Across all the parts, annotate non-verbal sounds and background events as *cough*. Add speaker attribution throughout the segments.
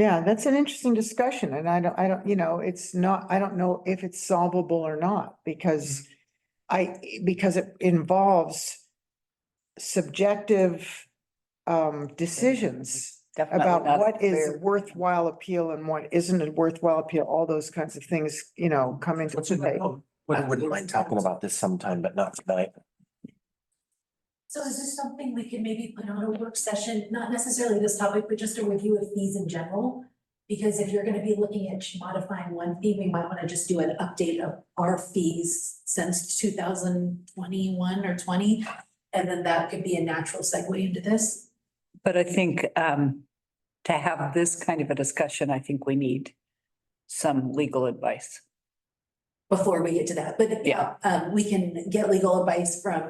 Speaker 1: Yeah, that's an interesting discussion and I don't, I don't, you know, it's not, I don't know if it's solvable or not
Speaker 2: Mm.
Speaker 1: because I, because it involves subjective um, decisions
Speaker 2: Definitely
Speaker 1: about
Speaker 2: not
Speaker 1: what is
Speaker 2: fair.
Speaker 1: worthwhile appeal and what isn't a worthwhile appeal, all those kinds of things, you know, come into
Speaker 3: What's it?
Speaker 1: play.
Speaker 3: I wouldn't mind talking about this sometime, but not tonight.
Speaker 4: So is this something we can maybe put on a work session, not necessarily this topic, but just a review of fees in general? Because if you're gonna be looking at modifying one fee, we might wanna just do an update of our fees since two thousand twenty-one or twenty. And then that could be a natural segue into this.
Speaker 2: But I think um, to have this kind of a discussion, I think we need some legal advice.
Speaker 4: before we get to that, but
Speaker 2: Yeah.
Speaker 4: yeah, um, we can get legal advice from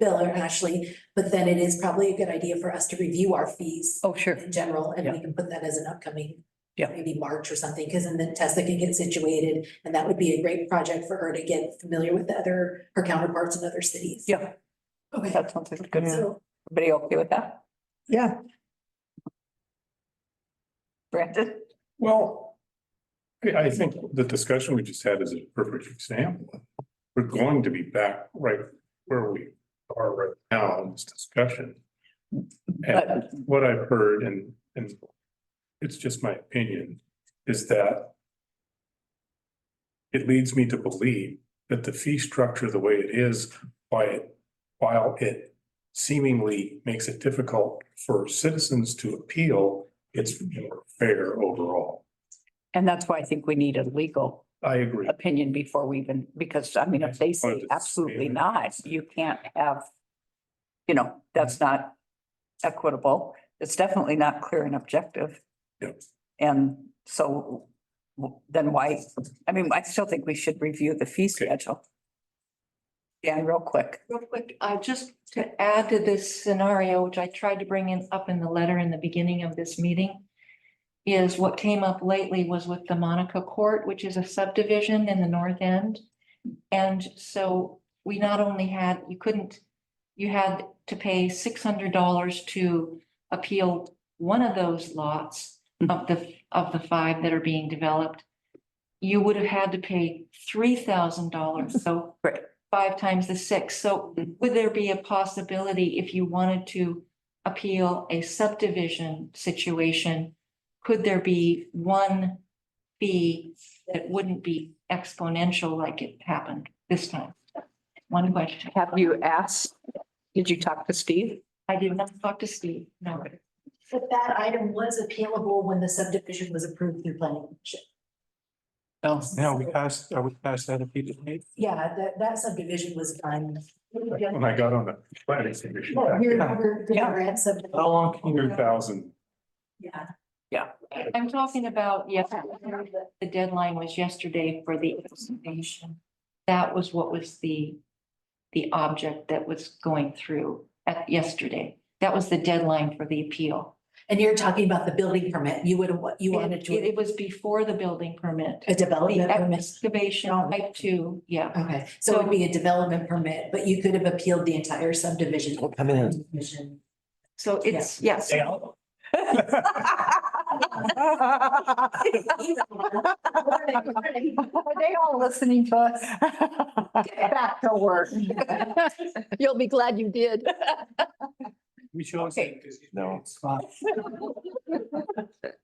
Speaker 4: Bill or Ashley, but then it is probably a good idea for us to review our fees
Speaker 2: Oh, sure.
Speaker 4: in general, and we can put that as an upcoming
Speaker 2: Yeah.
Speaker 4: maybe March or something, because then Tessa can get situated, and that would be a great project for her to get familiar with the other, her counterparts in other cities.
Speaker 2: Yeah,
Speaker 4: Okay,
Speaker 2: that sounds like a good.
Speaker 4: so,
Speaker 2: Everybody okay with that?
Speaker 1: Yeah,
Speaker 2: Brandon?
Speaker 5: Well, I, I think the discussion we just had is a perfect example. We're going to be back right where we are right now in this discussion. And
Speaker 2: But-
Speaker 5: what I've heard and, and it's just my opinion, is that it leads me to believe that the fee structure, the way it is, why it, while it seemingly makes it difficult for citizens to appeal, it's more fair overall.
Speaker 2: And that's why I think we need a legal
Speaker 5: I agree.
Speaker 2: opinion before we even, because I mean, if they say absolutely not, you can't have, you know, that's not equitable. It's definitely not clear and objective.
Speaker 5: Yep.
Speaker 2: And so w- then why, I mean, I still think we should review the fee
Speaker 5: Okay.
Speaker 2: schedule. Dan, real quick.
Speaker 6: Real quick, uh, just to add to this scenario, which I tried to bring in up in the letter in the beginning of this meeting. Is what came up lately was with the Monica Court, which is a subdivision in the north end. And so we not only had, you couldn't, you had to pay six hundred dollars to appeal one of those lots of the, of the five that are being developed. You would have had to pay three thousand dollars, so five times the six. So would there be a possibility if you wanted to appeal a subdivision situation? Could there be one fee that wouldn't be exponential like it happened this time? One question.
Speaker 2: Have you asked, did you talk to Steve?
Speaker 6: I did not talk to Steve, no.
Speaker 4: but that item was appealable when the subdivision was approved through planning. commission.
Speaker 2: Oh, No.
Speaker 7: Now, we passed, are we past that repeatedly?
Speaker 4: Yeah, that, that subdivision was done.
Speaker 5: When I got on the planning commission
Speaker 4: Yeah,
Speaker 5: back
Speaker 4: we
Speaker 5: in
Speaker 4: were- we were at subdivision.
Speaker 7: How long can
Speaker 5: two
Speaker 7: you,
Speaker 5: thousand,
Speaker 4: Yeah.
Speaker 6: I'm talking about, yes, the deadline was yesterday for the application. That was what was the, the object that was going through at yesterday. That was the deadline for the appeal.
Speaker 4: And you're talking about the building permit, you would, you wanted
Speaker 6: It,
Speaker 4: to,
Speaker 6: it was before the building permit.
Speaker 4: a
Speaker 6: The
Speaker 4: development permit?
Speaker 6: excavation type two, yeah.
Speaker 4: Okay, so it'd be a development permit, but you could have appealed the entire subdivision.
Speaker 3: Well, come in.
Speaker 4: Subdivision.
Speaker 6: So it's, yes.
Speaker 1: *laughs*
Speaker 2: *laughs* Are they all listening to us? Back to work.
Speaker 8: You'll be glad you did.
Speaker 7: we should also.
Speaker 3: No.
Speaker 4: All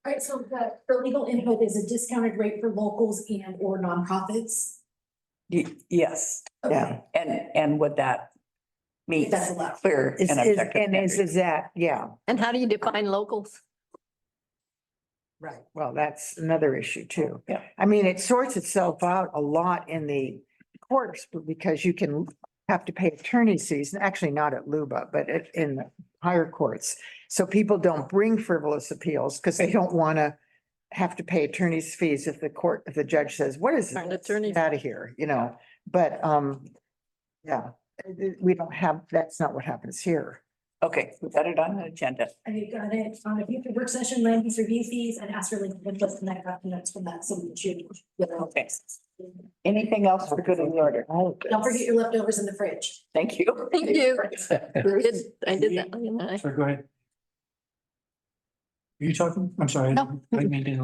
Speaker 4: right, so the, the legal input is a discounted rate for locals and or nonprofits.
Speaker 2: Y- Yes,
Speaker 1: yeah.
Speaker 2: and, and would that meet
Speaker 4: That's allowed.
Speaker 2: clear
Speaker 1: Is,
Speaker 2: and
Speaker 1: is,
Speaker 2: objective
Speaker 1: and is,
Speaker 2: standards?
Speaker 1: is that, yeah,
Speaker 8: And how do you define locals?
Speaker 4: Right.
Speaker 1: well, that's another issue too.
Speaker 2: Yeah.
Speaker 1: I mean, it sorts itself out a lot in the courts because you can have to pay attorney's fees, and actually not at Luba, but at, in higher courts. So people don't bring frivolous appeals because they don't want to have to pay attorney's fees if the court, if the judge says, what is
Speaker 8: Darn
Speaker 1: this?
Speaker 8: attorneys.
Speaker 1: Out of here, you know, but, um, yeah, uh, we don't have, that's not what happens here.
Speaker 2: Okay, we got it on the agenda.
Speaker 4: Have you got it on a future work session, land use review fees and ask for legal input and that documents from that, so we should. you know.
Speaker 2: Okay. Anything else for good in the order?
Speaker 4: Don't forget your leftovers in the fridge.
Speaker 2: Thank you. *laughs*
Speaker 8: Thank you. I did, I did that.
Speaker 7: Sorry, go ahead.
Speaker 5: you talking? I'm sorry. I
Speaker 9: No.
Speaker 5: didn't mean to